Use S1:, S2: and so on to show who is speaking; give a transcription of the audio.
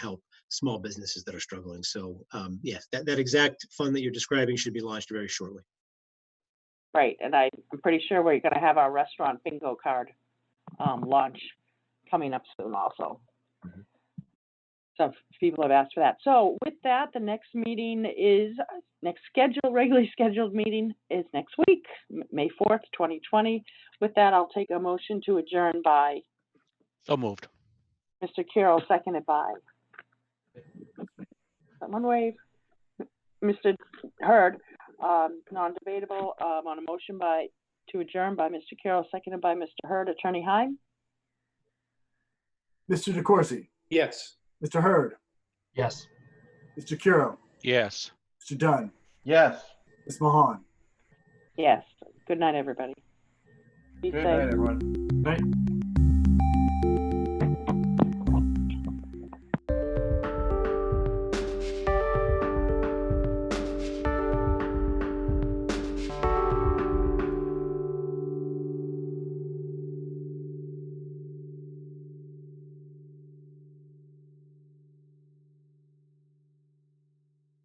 S1: help small businesses that are struggling. So um, yes, that, that exact fund that you're describing should be launched very shortly.
S2: Right, and I, I'm pretty sure we're gonna have our restaurant bingo card, um, launch coming up soon also.
S3: Mm-hmm.
S1: Mhm.
S2: So f- people have asked for that. So with that, the next meeting is, next scheduled, regularly scheduled meeting is next week, M- May fourth, twenty twenty. With that, I'll take a motion to adjourn by
S3: So moved.
S2: Mr. Carroll, seconded by. Someone wave. Mr. Hurd, um, non-debatable, um, on a motion by, to adjourn by Mr. Carroll, seconded by Mr. Hurd. Attorney Heim?
S4: Mr. DeCoursey,
S5: Yes.
S4: Mr. Hurd,
S5: Yes.
S4: Mr. Kuro,
S3: Yes.
S4: Mr. Dunn,
S5: Yes.
S4: Ms. Mahan.
S2: Yes. Good night, everybody. Be
S5: Good
S2: safe.
S5: night, everyone.